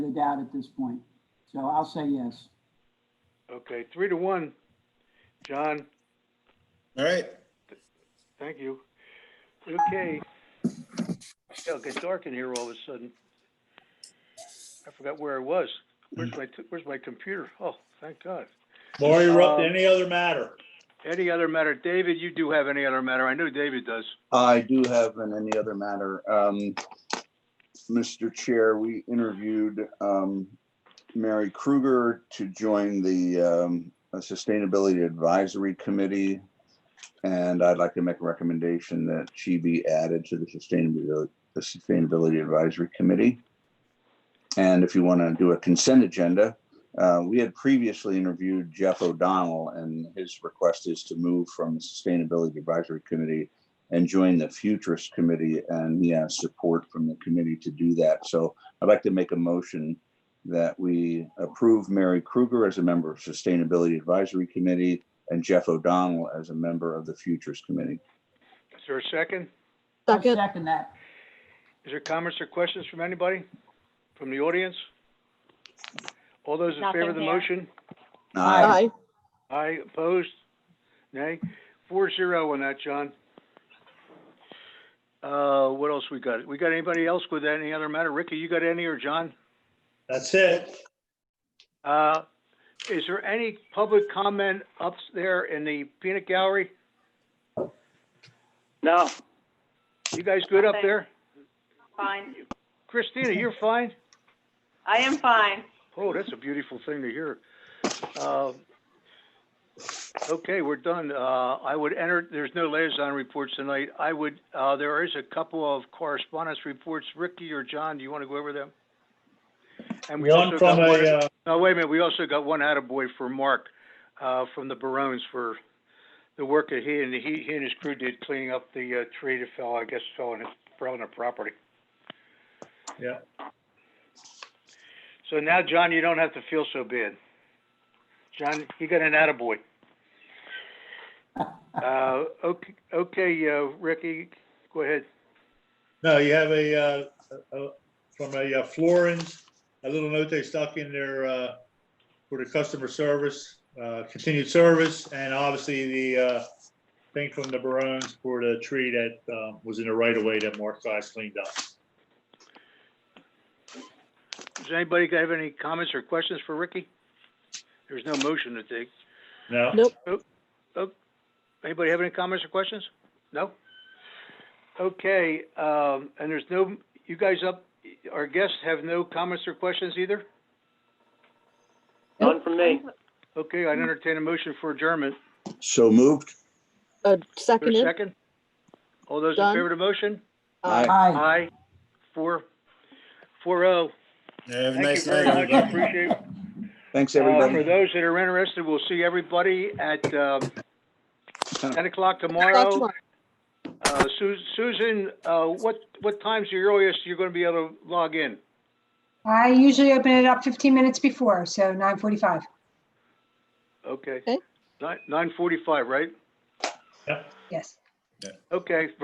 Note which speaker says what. Speaker 1: the doubt at this point. So I'll say yes.
Speaker 2: Okay, three to one. John,
Speaker 3: All right.
Speaker 2: thank you. Okay. Yeah, it got dark in here all of a sudden. I forgot where I was. Where's my, where's my computer? Oh, thank God.
Speaker 4: Laura, you're up to
Speaker 2: Um,
Speaker 4: any other matter?
Speaker 2: Any other matter? David, you do have any other matter? I know David does.
Speaker 5: I do have an any other matter. Um, Mr. Chair, we interviewed, um, Mary Kruger to join the, um, Sustainability Advisory Committee. And I'd like to make a recommendation that she be added to the Sustainability, the Sustainability Advisory Committee. And if you want to do a consent agenda, uh, we had previously interviewed Jeff O'Donnell and his request is to move from the Sustainability Advisory Committee and join the Futurist Committee, and he has support from the committee to do that. So I'd like to make a motion that we approve Mary Kruger as a member of Sustainability Advisory Committee and Jeff O'Donnell as a member of the Futurist Committee.
Speaker 2: Is there a second?
Speaker 1: I'll
Speaker 6: Second,
Speaker 1: Second that.
Speaker 2: Is there comments or questions from anybody? From the audience? All those in favor of the
Speaker 7: Nothing here.
Speaker 2: motion?
Speaker 5: Aye.
Speaker 6: aye.
Speaker 2: Aye, opposed? Nay? Four zero on that, John. Uh, what else we got? We got anybody else with any other matter? Ricky, you got any or John?
Speaker 4: That's it.
Speaker 2: Uh, is there any public comment up there in the peanut gallery?
Speaker 8: No,
Speaker 2: You guys good up there?
Speaker 7: Fine.
Speaker 2: Christina, you're fine?
Speaker 7: I am fine.
Speaker 2: Oh, that's a beautiful thing to hear. Uh, Okay, we're done. Uh, I would enter, there's no liaison reports tonight. I would, uh, there is a couple of correspondence reports. Ricky or John, do you want to go over them? And we also
Speaker 4: One from
Speaker 2: got
Speaker 4: a,
Speaker 2: one-
Speaker 4: uh,
Speaker 2: No, wait a minute, we also got one attaboy for Mark, uh, from the Barones for the work that he and, he, he and his crew did cleaning up the, uh, tree that fell, I guess, fell on his, fell on their property.
Speaker 4: Yeah.
Speaker 2: So now, John, you don't have to feel so bad. John, you got an attaboy. Uh, okay, okay, uh, Ricky, go ahead.
Speaker 4: no, you have a, uh, uh, from a uh, Florins, a little note they stuck in there, uh, for the customer service, uh, continued service, and obviously the, uh, thing from the Barones for the tree that, um, was in the right of way that Mark Glass cleaned up.
Speaker 2: Does anybody have any comments or questions for Ricky? There's no motion to take.
Speaker 4: No?
Speaker 6: Nope.
Speaker 2: Anybody have any comments or questions? No? Okay, um, and there's no, you guys up, our guests have no comments or questions either?
Speaker 8: none from me.
Speaker 2: Okay, I'd entertain a motion for adjournment.
Speaker 5: So moved.
Speaker 2: For
Speaker 6: Uh,
Speaker 2: a
Speaker 6: seconded,
Speaker 2: second? All those in
Speaker 6: Done.
Speaker 2: favor of the motion?
Speaker 6: aye.
Speaker 1: Aye.
Speaker 2: Aye. Four, four oh.
Speaker 3: Have a
Speaker 2: Thank you
Speaker 3: nice
Speaker 2: very
Speaker 3: night,
Speaker 2: much,
Speaker 3: everybody.
Speaker 2: appreciate it.
Speaker 5: Thanks,
Speaker 2: Uh, for
Speaker 5: everybody.
Speaker 2: those that are interested, we'll see everybody at, um, ten o'clock
Speaker 6: Talk
Speaker 2: tomorrow.
Speaker 6: tomorrow.
Speaker 2: Uh, Su- Susan, uh, what, what time's the earliest you're gonna be able to log in?
Speaker 9: I usually open it up 15 minutes before, so 9:45.
Speaker 2: Okay.
Speaker 6: Okay.
Speaker 2: Nine, nine forty-five, right?
Speaker 9: Yes.
Speaker 2: Okay,